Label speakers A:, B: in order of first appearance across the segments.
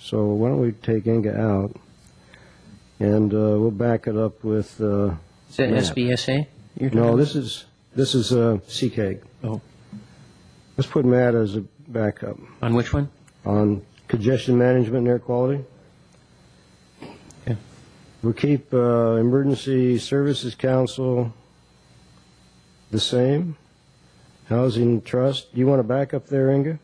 A: So why don't we take Inga out, and uh, we'll back it up with, uh,
B: Is that
A: Yeah.
B: SBSA? You're
A: no,
B: talking-
A: this is, this is uh, Sea Cake.
B: Oh.
A: Let's put Matt as a backup
B: On which one?
A: on congestion management and air quality.
B: Yeah.
A: We'll keep uh, Emergency Services Council the same. Housing Trust, do you want to back up there, Inga?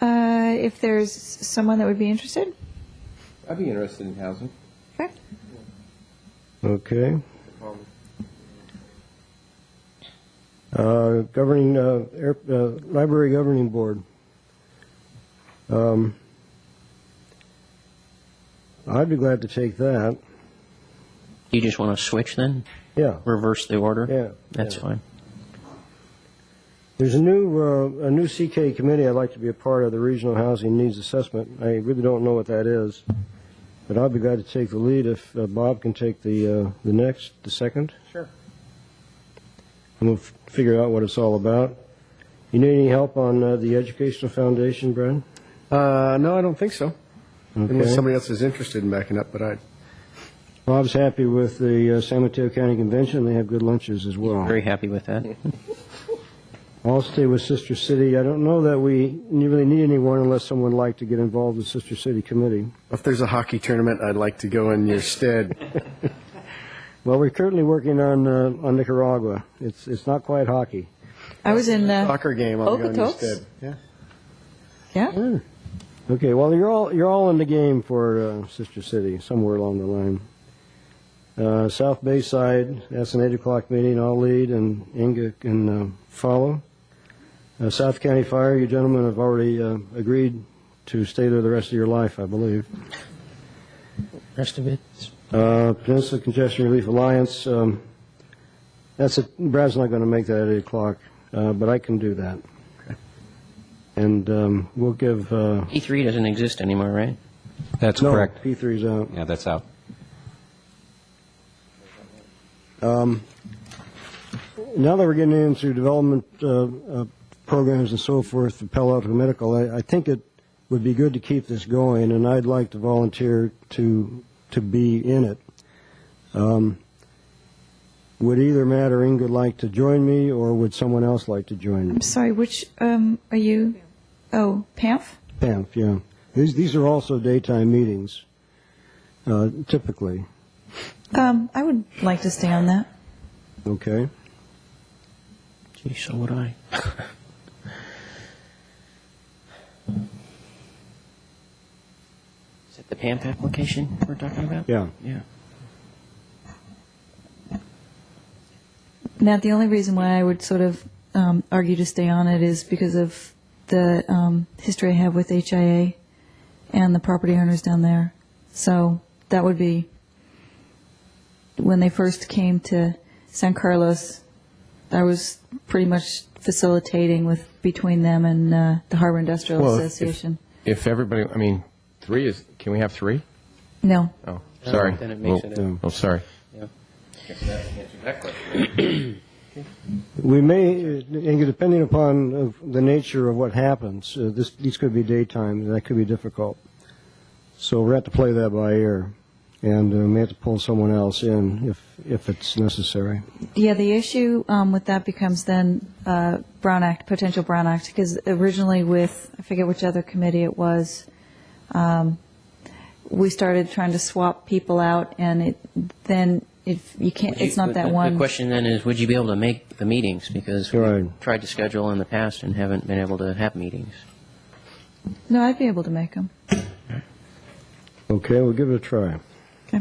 C: Uh, if there's someone that would be interested,
D: I'd be interested in housing.
C: okay.
A: Okay. Uh, Governing, uh, air- uh, Library Governing Board. Um, I'd be glad to take that,
B: You just want to switch then?
A: yeah.
B: Reverse the order?
A: Yeah,
B: That's
A: yeah.
B: fine.
A: There's a new, uh, a new CK committee I'd like to be a part of, the Regional Housing Needs Assessment. I really don't know what that is, but I'd be glad to take the lead if uh, Bob can take the, uh, the next, the second.
D: Sure.
A: And we'll f- figure out what it's all about. You need any help on uh, the Educational Foundation, Brad?
D: Uh, no, I don't think so.
A: Okay.
D: Unless somebody else is interested in backing up, but I,
A: Bob's happy with the uh, San Mateo County Convention, they have good lunches as well.
B: Very happy with that.
A: I'll stay with Sister City. I don't know that we really need anyone unless someone would like to get involved with Sister City Committee.
D: if there's a hockey tournament, I'd like to go in your stead.
A: Well, we're currently working on, uh, on Nicaragua. It's, it's not quite hockey.
C: I was in uh, the,
D: Soccer game, I'll go in your
C: Okotoks?
D: stead. Yeah.
C: yeah,
A: Okay, well, you're all, you're all in the game for uh, Sister City, somewhere along the line. Uh, South Bayside, that's an 8 o'clock meeting, I'll lead and Inga can uh, follow. Uh, South County Fire, you gentlemen have already uh, agreed to stay there the rest of your life, I believe.
B: Rest of it?
A: Uh, Peninsula Congestion Relief Alliance, um, that's it, Brad's not going to make that at 8 o'clock, uh, but I can do that. And um, we'll give, uh,
B: E3 E doesn't exist anymore, right?
E: That's
A: no,
E: correct.
A: P3's out.
E: Yeah, that's out.
A: Now that we're getting into development uh, uh, programs and so forth for Palo Alto Medical, I I think it would be good to keep this going, and I'd like to volunteer to, to be in it. Um, Would either Matt or Inga like to join me, or would someone else like to join me?
C: I'm sorry, which, um, are you, oh, PAMF?
A: PAMP, yeah. These, these are also daytime meetings, uh, typically,
C: Um, I would like to stay on that.
A: okay?
B: Gee, so would I. Is that the PAMP application we're talking about?
A: Yeah.
B: Yeah.
C: Now, the only reason why I would sort of, um, argue to stay on it is because of the, um, history I have with HIA and the property owners down there. So that would be, when they first came to San Carlos, I was pretty much facilitating with, between them and, uh, the Harbor Industrial
F: Well, if- if-
C: Association.
F: If everybody, I mean, three is, can we have three?
C: No.
F: Oh, sorry.
B: then it makes
F: Oh,
B: it a-
F: Oh, sorry.
A: We may, uh, and depending upon of the nature of what happens, uh, this, these could be daytime, and that could be difficult. So we're going to have to play that by ear, and uh, may have to pull someone else in if, if it's necessary.
C: Yeah, the issue um, with that becomes then uh, Brown Act, potential Brown Act, because originally with, I forget which other committee it was, um, we started trying to swap people out, and it, then if you can't, it's
B: The-
C: not
B: the-
C: that one.
B: The question then is, would you be able to make the meetings? Because we
A: Right.
B: tried to schedule in the past and haven't been able to have meetings.
C: No, I'd be able to make them.
A: Okay, we'll give it a try.
C: Okay.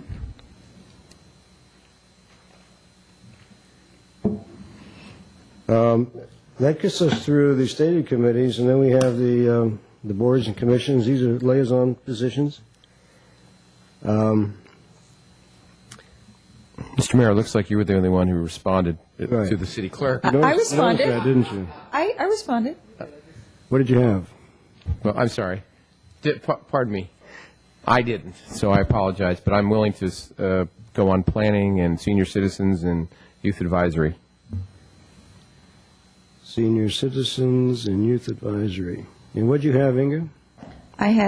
A: Um, That gets us through the stated committees, and then we have the, um, the boards and commissions. These are liaison positions. Um,
F: Mr. Mayor, it looks like you were the only one who responded uh,
A: Right.
F: to the city clerk.
C: I-
A: noticed- noticed
C: responded.
A: that, Didn't you?
C: I, I responded.
A: What did you have?
F: Well, I'm sorry. Di- pa- Pardon me. I didn't, so I apologize, but I'm willing to uh, go on planning and senior citizens and youth advisory.
A: Senior Citizens and Youth Advisory. And what'd you have, Inga?
C: I had